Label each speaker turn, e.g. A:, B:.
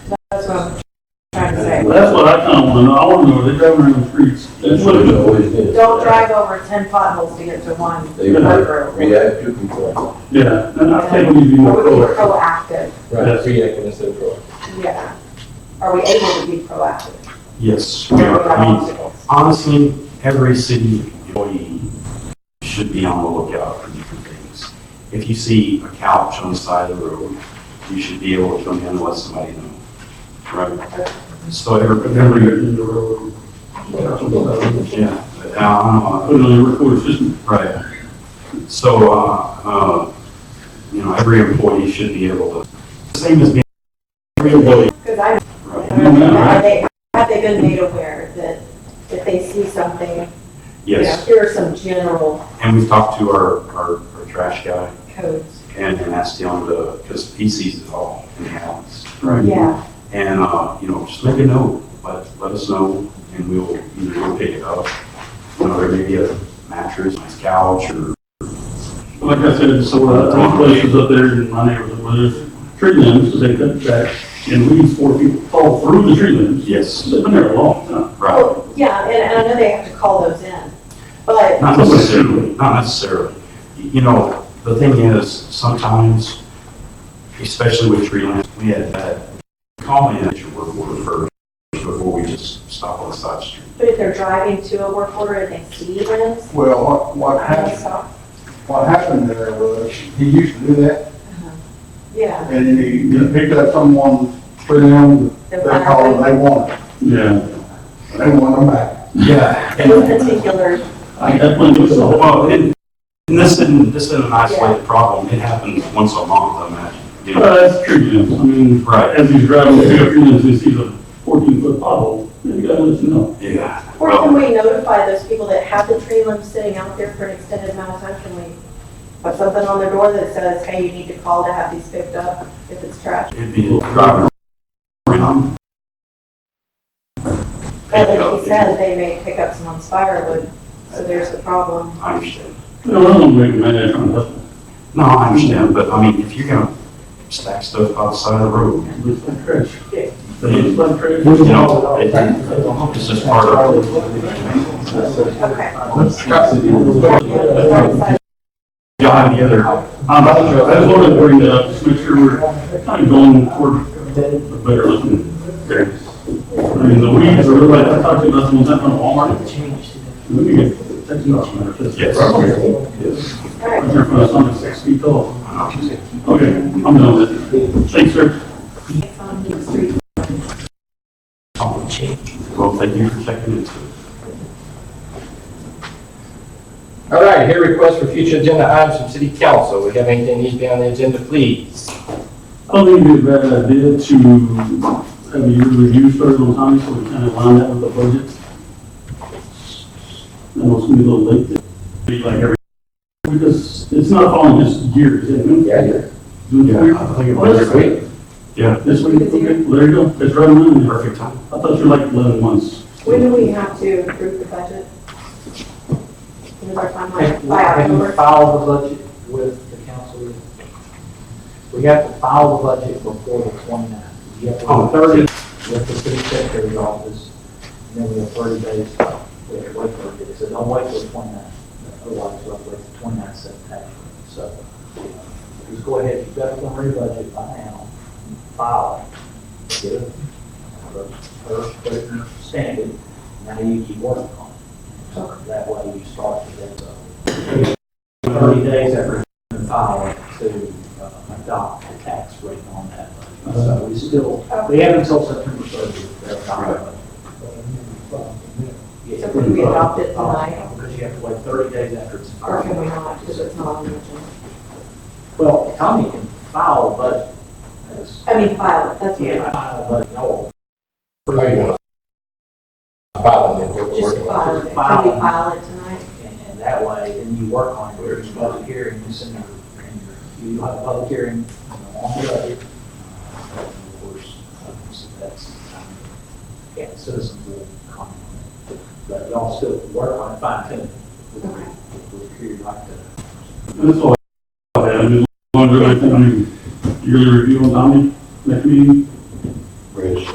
A: what I'm trying to say.
B: Well, that's what I kinda wanna know, I wanna know, they driving around the streets, that's
C: what
B: what it
C: it
B: is.
C: always is.
A: Don't drive over ten potholes to get to one
C: They
A: through.
C: react to control.
B: Yeah, and I think we need to be more
A: Are we proactive?
B: proactive. Yes.
C: Reacting instead of proactive.
A: Yeah. Are we able to be proactive?
D: Yes, we
A: Where
D: are.
A: we have
D: I mean,
A: obstacles?
D: honestly, every city employee should be on the lookout for different things. If you see a couch on the side of the road, you should be able to come in and let somebody know. Right? So every, every,
B: In the road.
D: yeah, uh, but now, I don't know,
B: Put it on the recorder system.
D: Right. So, uh, uh, you know, every employee should be able to, same as being, every employee,
A: Because I,
D: right?
A: have they, have they been made aware that if they see something, you know,
D: Yes,
A: here are some general
D: and we've talked to our, our, our trash guy,
A: codes?
D: and, and asked him to, because he sees it all in the alleys.
A: Yeah,
D: And, uh, you know, just make a note, let, let us know, and we'll either go pick it up. You know, there may be a mattress, nice couch, or,
B: Like I said, so, uh, there's places up there in my neighborhood where there's tree limbs, they cut back, and weeds four people fall through the tree limbs.
D: yes,
B: They've been there a long time.
D: right.
A: well, yeah, and, and I know they have to call those in, but,
D: Not necessarily, not necessarily. You know, the thing is, sometimes, especially with tree lines, we had that comment that you were referred before we just stop on the side street.
A: but if they're driving to a work order and they see limbs,
E: Well, what, what
A: they'll
E: happened,
A: stop.
E: what happened there was, he used to do that,
A: Yeah,
E: and then he, he picked up someone, put them, they called, and they wanted, it.
B: Yeah.
E: they wanted them back.
D: Yeah.
A: those particular,
B: I got one, it was a whole-
D: Well, and, uh, and this isn't, this isn't an isolated problem. It happens once a month, I imagine. You know,
B: uh, that's tree limbs, I mean,
D: Right,
B: as he's driving through the tree limbs, he sees a fourteen foot pothole, and you gotta let him know.
D: yeah.
A: or can
D: Well,
A: we notify those people that have the tree limbs sitting out there for an extended amount of time? Can we put something on their door that says, hey, you need to call to have these picked up if it's trash?
D: it'd be driving around.
A: But like you said, they may pick up someone's firewood, so there's a problem.
D: I understand.
B: No, I don't make a man out of hustle.
D: No, I understand, but I mean, if you're gonna stack stuff outside the road,
B: It's like trash.
A: Yeah.
B: It's like trash.
D: you know, it- it's just part of,
A: Okay.
D: you know, the other,
B: Um, I just wanted to bring that up, just make sure we're kind of going toward a better looking area. I mean, the weeds are like, I talked to you about them, that one at Walmart. Let me get, that's not matter. that's-
D: Yes.
A: All
B: I'm
A: right,
B: here for something six feet tall.
D: uh,
B: Okay, I'm done with it. Thanks, sir.
A: it's on the street.
D: well, thank you for checking into it.
C: All right, here requests for future agenda items from city council. We have anything needs to be on the agenda, please?
B: I don't think it'd be a bad idea uh, to have your review started on time, so we kind of line that with the budget. I know it's gonna be a little late, there. be like every, because it's not following just years, is it?
C: Yeah.
D: Yeah, I think it
C: This
D: was
C: week?
B: This week, okay, there you go, it's right on, I
D: perfect time.
B: thought you were like eleven months.
A: When do we have to approve the budget? When is our timeline? By October?
F: file the budget with the council. We have to file the budget before the 29th. We have to
D: On Thursday,
F: with the city secretary's office, and then we have 30 days to wait for it. So don't wait till the 29th, otherwise you'll have to wait till 29th September. So just go ahead, you've got a preliminary budget by now, file it. Get it, first, first, standard, now you keep working on it. So that way you start to get the 30 days after you file it to uh, adopt the tax rate on that. budget. So we still we have until September thirtieth. to adopt it.
A: So can we adopt it tonight,
F: Because you have to wait thirty days after it's
A: or can we
F: filed.
A: not, because it's not on the agenda?
F: Well, Tommy can file a budget. That's-
A: I mean, file it, that's what
F: Yeah,
A: it
F: file a budget, no,
C: How you want to? About it, we're
A: is. Just
C: working on
A: file it. Can we file it tonight?
F: and, and that way, then you work on it, there's a public hearing, you send your, and your- you have a public hearing you know, on the budget. Uh, Of course, uh, so that's, um, yeah, citizens will comment on it. But y'all still work on it, fine tune. it.
A: Okay.
F: We're here like uh, to
B: That's all I had, I mean, longer, I think, I mean, yearly review on Tommy, next meeting.
C: it.